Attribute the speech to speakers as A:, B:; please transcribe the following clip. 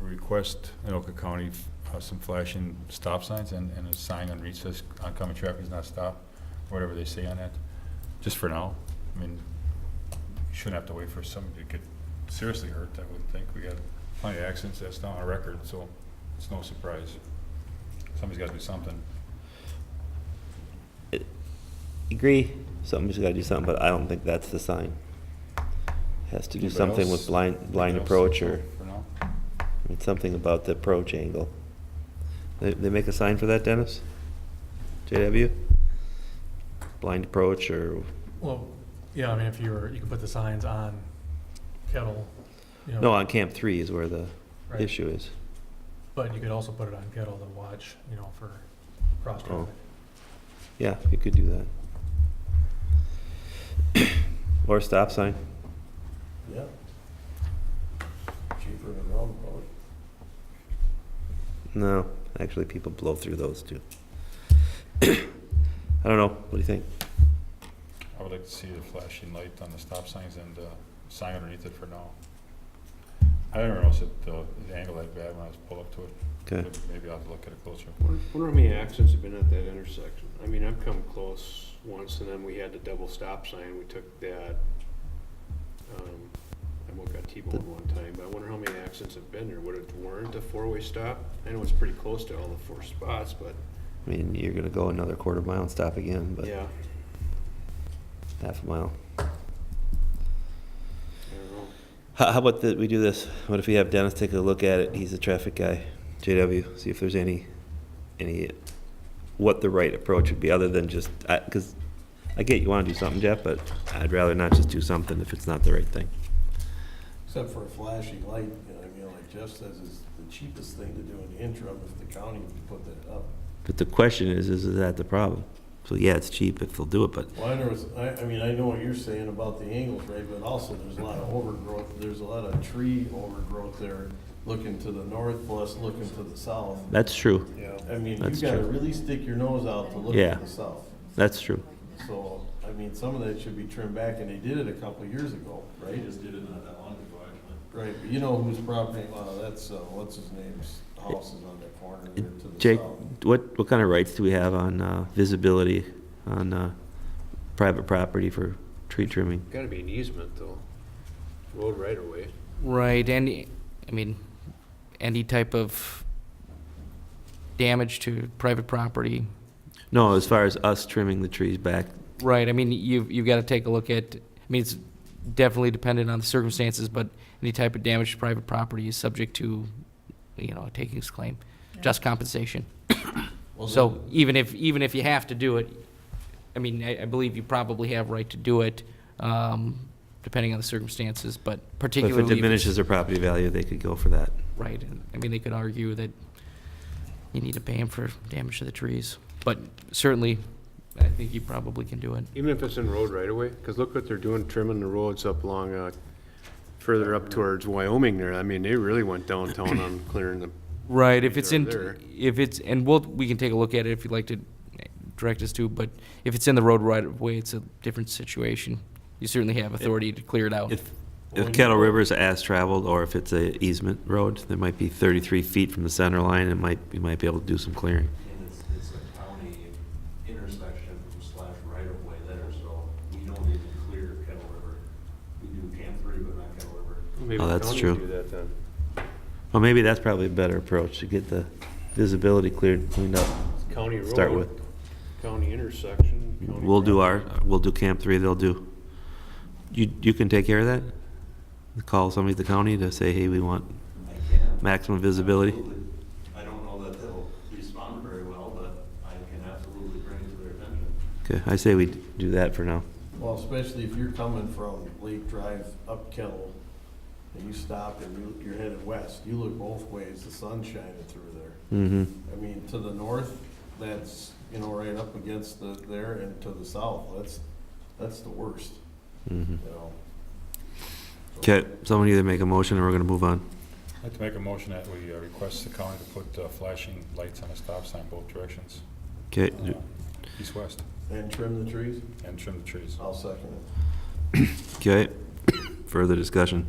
A: request in Oka County uh, some flashing stop signs and, and a sign on reach says oncoming traffic is not stopped, whatever they say on that, just for now. I mean, you shouldn't have to wait for somebody to get seriously hurt, I would think. We got plenty of accidents, that's not on record, so it's no surprise. Somebody's gotta do something.
B: Agree, something's gotta do something, but I don't think that's the sign. Has to do
A: Anybody
B: something with
A: else?
B: blind,
A: Anybody
B: blind
A: else?
B: approach or,
A: For now?
B: I mean, something about the approach angle. They, they make a sign for that, Dennis? JW? Blind approach or,
C: Well, yeah, I mean, if you were, you could put the signs on Kettle, you know.
B: no, on Camp Three is where the
C: right,
B: issue is.
C: But you could also put it on Kettle to watch, you know, for cross
B: Oh.
C: traffic.
B: Yeah, you could do that. Or a stop sign,
D: Yeah. Cheaper than roundabout.
B: no, actually, people blow through those too. I don't know, what do you think?
A: I would like to see the flashing light on the stop signs and uh sign underneath it for now. I didn't realize it, uh, the angle that bad when I was pulled up to it.
B: Okay,
A: but Maybe I'll have to look at it closer.
E: Wonder wonder how many accidents have been at that intersection. I mean, I've come close once, and then we had the double stop sign, we took that. um, I almost got T-boned one time, but I wonder how many accidents have been there. Would it warrant a four-way stop? I know it's pretty close to all the four spots, but,
B: I mean, you're gonna go another quarter mile and stop again, but
E: yeah,
B: half a mile.
E: I don't know.
B: How, how about that we do this? What if we have Dennis take a look at it? He's a traffic guy. JW, see if there's any, any, what the right approach would be, other than just, I, cause I get you wanna do something, Jeff, but I'd rather not just do something if it's not the right thing.
D: Except for a flashing light, you know, I mean, like Jeff says, it's the cheapest thing to do in the interim if the county would put that up.
B: But the question is, is that the problem? So yeah, it's cheap if they'll do it, but
D: Well, there was, I, I mean, I know what you're saying about the angles, right, but also there's a lot of overgrowth, there's a lot of tree overgrowth there, looking to the north, plus looking to the south.
B: that's true,
D: Yeah. I mean, you
B: That's
D: gotta
B: true.
D: really stick your nose out to look
B: Yeah.
D: to the south.
B: that's true.
D: So, I mean, some of that should be trimmed back, and they did it a couple of years ago, right?
F: just did it not that long ago, actually.
D: Right, but you know whose property, well, that's, uh, what's his name's house is on that corner there to the
B: Jake,
D: south.
B: what, what kind of rights do we have on, uh, visibility on, uh, private property for tree trimming?
E: Gotta be an easement, though. Road right-of-way.
G: Right, any, I mean, any type of damage to private property.
B: No, as far as us trimming the trees back,
G: Right, I mean, you've, you've got to take a look at, I mean, it's definitely dependent on the circumstances, but any type of damage to private property is subject to, you know, a takings claim, just compensation.
D: Well,
G: So even if, even if you have to do it, I mean, I, I believe you probably have right to do it, um, depending on the circumstances, but
B: But if
G: particularly.
B: it
G: it's-
B: diminishes their property value, they could go for that.
G: Right, and I mean, they could argue that you need to pay him for damage to the trees, but certainly, I think you probably can do it.
E: Even if it's in road right away, because look what they're doing, trimming the roads up along, uh, further up towards Wyoming there. I mean, they really went downtown on clearing the
G: Right, if it's in,
E: There.
G: if it's, and we'll, we can take a look at it if you'd like to direct us to, but if it's in the road right of way, it's a different situation. You certainly have authority to clear it out.
B: If, if Kettle River is as traveled, or if it's a easement road, that might be thirty-three feet from the center line, it might, you might be able to do some clearing.
F: And it's, it's a county intersection slash right-of-way there, so we don't need to clear Kettle River. We do Camp Three, but not Kettle River.
E: Maybe
B: Oh,
E: the
B: that's
E: county
B: true.
E: would do that then.
B: Well, maybe that's probably a better approach, to get the visibility cleared, cleaned up.
E: County road.
B: Start with,
E: County intersection. county
B: we'll do our,
E: property.
B: we'll do Camp Three, they'll do. You, you can take care of that? Call somebody at the county to say, hey, we want
F: I can.
B: maximum visibility?
F: Absolutely. I don't know that they'll respond very well, but I can absolutely bring it to their attention.
B: Okay, I say we do that for now.
D: Well, especially if you're coming from Lake Drive up Kettle, and you stop and you- you're headed west, you look both ways, the sun's shining through there.
B: Mm-hmm.
D: I mean, to the north, that's, you know, right up against the, there, and to the south, that's, that's the worst,
B: Mm-hmm.
D: you know?
B: Okay, someone either make a motion or we're gonna move on.
A: I'd like to make a motion that we uh, request the county to put uh, flashing lights on a stop sign both directions,
B: Okay,
A: uh, east-west,
D: And trim the trees?
A: and trim the trees.
D: I'll second it.
B: okay, further discussion.